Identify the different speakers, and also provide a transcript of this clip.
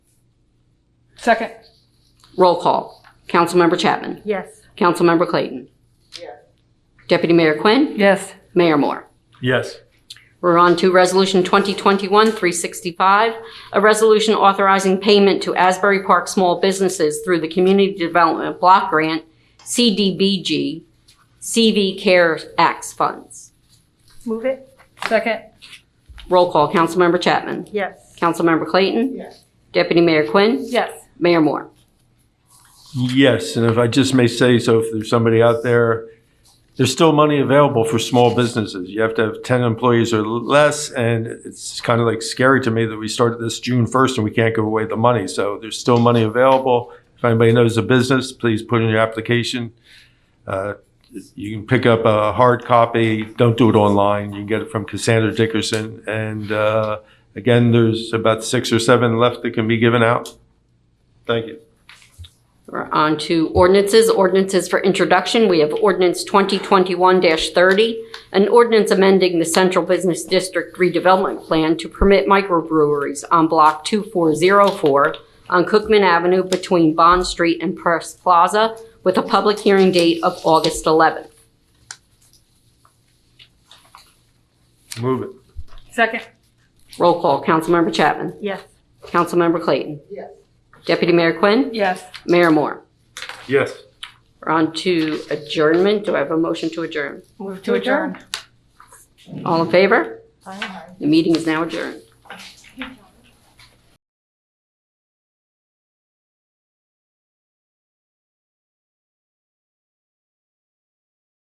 Speaker 1: Second?
Speaker 2: Roll call. Councilmember Chapman.
Speaker 3: Yes.
Speaker 2: Councilmember Clayton. Deputy Mayor Quinn.
Speaker 1: Yes.
Speaker 2: Mayor Moore.
Speaker 4: Yes.
Speaker 2: We're on to Resolution 2021-365, a resolution authorizing payment to Asbury Park small businesses through the Community Development Block Grant, CDBG, CV Care Acts funds.
Speaker 3: Move it?
Speaker 1: Second?
Speaker 2: Roll call. Councilmember Chapman.
Speaker 3: Yes.
Speaker 2: Councilmember Clayton.
Speaker 3: Yes.
Speaker 2: Deputy Mayor Quinn.
Speaker 1: Yes.
Speaker 2: Mayor Moore.
Speaker 4: Yes, and if I just may say so, if there's somebody out there, there's still money available for small businesses. You have to have 10 employees or less, and it's kind of like scary to me that we started this June 1st and we can't give away the money. So there's still money available. If anybody knows a business, please put in your application. Uh, You can pick up a hard copy. Don't do it online. You can get it from Cassandra Dickerson. And uh, again, there's about six or seven left that can be given out. Thank you.
Speaker 2: We're on to ordinances, ordinances for introduction. We have ordinance 2021-30, an ordinance amending the Central Business District redevelopment plan to permit microbreweries on Block 2404 on Cookman Avenue between Bond Street and Press Plaza with a public hearing date of August 11th.
Speaker 4: Move it.
Speaker 1: Second?
Speaker 2: Roll call, Councilmember Chapman.
Speaker 3: Yes.
Speaker 2: Councilmember Clayton.
Speaker 3: Yes.
Speaker 2: Deputy Mayor Quinn.
Speaker 1: Yes.
Speaker 2: Mayor Moore.
Speaker 4: Yes.
Speaker 2: We're on to adjournment. Do I have a motion to adjourn?
Speaker 1: Move to adjourn.
Speaker 2: All in favor?
Speaker 3: Aye.
Speaker 2: The meeting is now adjourned.